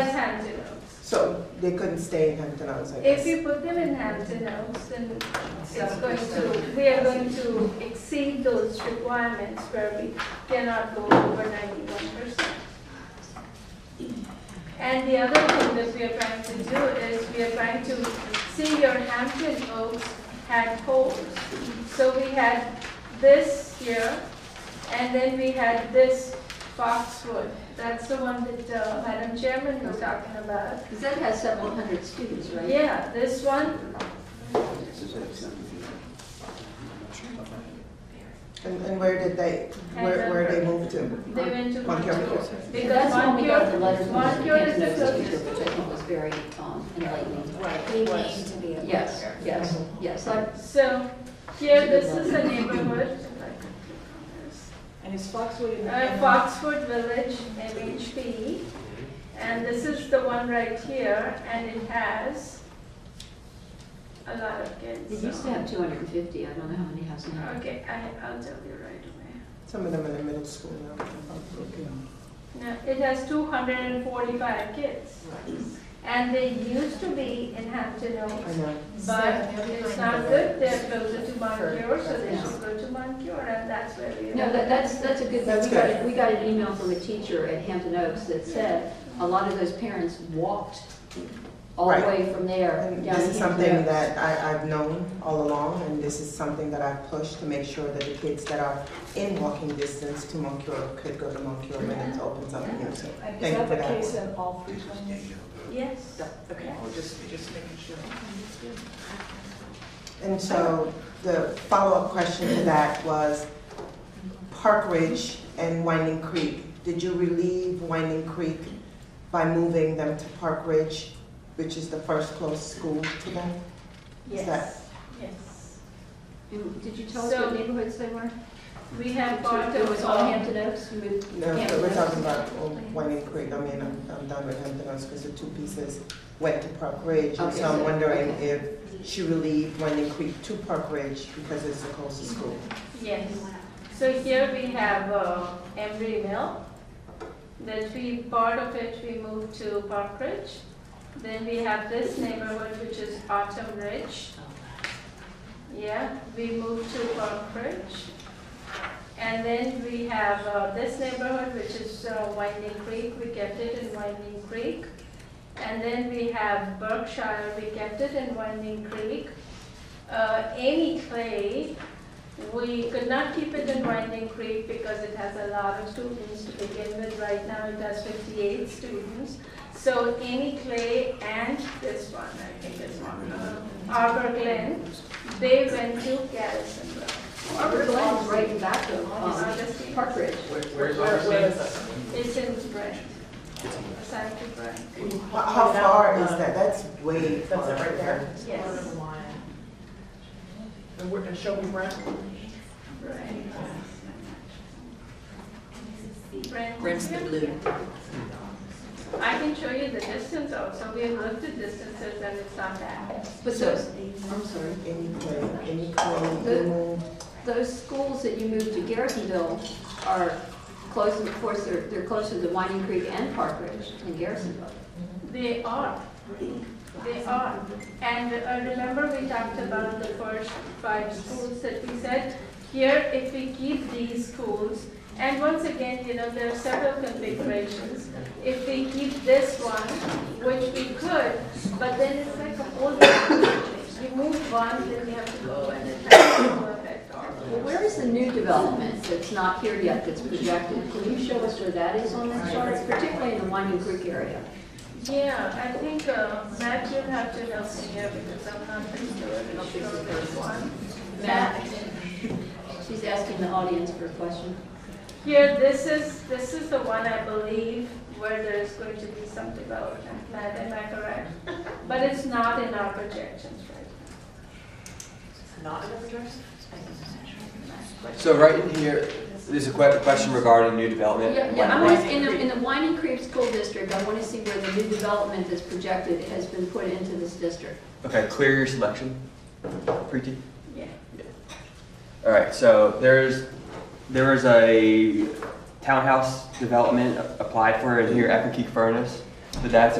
as Hampton Oaks. So they couldn't stay in Hampton Oaks, I If guess. you put them in Hampton Oaks, then it's going to, we are going to exceed those requirements where we cannot go over ninety-one percent. And the other thing that we are trying to do is we are trying to see your Hampton Oaks had holes. So we had this here, and then we had this Foxwood. That's the one that uh, Madam Chairman was talking about. Because that has several hundred students, right? Yeah, this one, And, and where did they, where, where they moved to? they went to Montgomery. Montcure. Because That's when we got the Montcure, letter from the Montcure is the Hampton Oaks teacher, closest. which I think was very um, enlightening. Right, we need to be. a Yes, leader. yes, yes. I- So here, this is a neighborhood. And is Foxwood in the? Uh, Foxwood Village, MHP. E. And this is the one right here, and it has a lot of kids. It used to have 250, I don't know how many has now. Okay, I, I'll tell you right away. Some of them in the middle school now. No, it has two hundred and forty-five kids. And they used to be in Hampton Oaks. I know. But it's not good, they're closer to Moncur, so they Yeah. should go to Moncur, and that's where we. No, that, that's, that's a good, That's we got, good. we got an email from a teacher at Hampton Oaks that said, a lot of those parents walked all the Right. way from there And down this is to Hampton something Oaks. that I, I've known all along, and this is something that I've pushed to make sure that the kids that are in walking distance to Moncur could go to Moncur when it opens up new. So And is thank you that for the that. case in all three towns? Yes. Okay, just, just making sure. And so the follow-up question to that was Park Ridge and Winding Creek. Did you relieve Winding Creek by moving them to Park Ridge, which is the first close school to them? Yes, yes. And Did you tell us what So- neighborhoods they were? We have got It was to, all um, Hampton Oaks, you moved? No, Hampton we're Oaks? talking about um, Winding Creek. I mean, I'm, I'm done with Hampton Oaks because the two pieces went to Park Ridge. And Okay, so I'm so- wondering okay. if she relieved Winding Creek to Park Ridge because it's the closest school. um, yes. So here we have uh, Embry Mill, that we, part of it we moved to Park Ridge. Then we have this neighborhood, which is Autumn Ridge. Yeah, we moved to Park Ridge. And then we have uh, this neighborhood, which is uh, Winding Creek, we kept it in Winding Creek. And then we have Berkshire, we kept it in Winding Creek. Uh, Amy Clay, we could not keep it in Winding Creek because it has a lot of students to begin with. Right now, it has 58 students. So Amy Clay and this one, I think this one, uh, Arbor Glen, they went to Garrisonburg. Arbor Glen is right in back of um, Augustine. Park Ridge. Where's Where- where is Augustine? it? It's in Brent, assigned to Brent, How, how far is that? That's way far. That's it right there. yes, And we're, and show me Brent. Brent. Brent. Brent's the blue. I can show you the distance also, we have looked at distances and it's not bad. But those, I'm sorry, Any claim, any claim, Good. remove. those schools that you moved to Garrisonville are close, of course, they're, they're closer to Winding Creek and Park Ridge in Garrisonville. They are, they are. And uh, remember we talked about the first five schools that we said, here if we keep these schools, and once again, you know, there are several configurations. If we keep this one, which we could, but then it's like a whole different situation. You move one, then you have to go and it has no effect on. Well, where is the new development that's not here yet that's projected? Can you show us where that is on that chart, particularly in the Winding Creek area? Yeah, I think, uh, Matt, you'll have to help me here because I'm not pretty sure I'll which fix it one this first. one. Matt, she's asking the audience for a question. Here, this is, this is the one I believe where there is going to be some development, Matt, am I correct? But it's not in our projections right Not in the projection? So right in here, there's a que- question regarding new development. Yeah, yeah, I want, in the, in the Winding Creek School District, I want to see where the new development that's projected has been put into this district. Okay, clear your selection, Preeti. now. Yeah. All right, so there's, there was a townhouse development applied for in here, Epic Furnace. But that's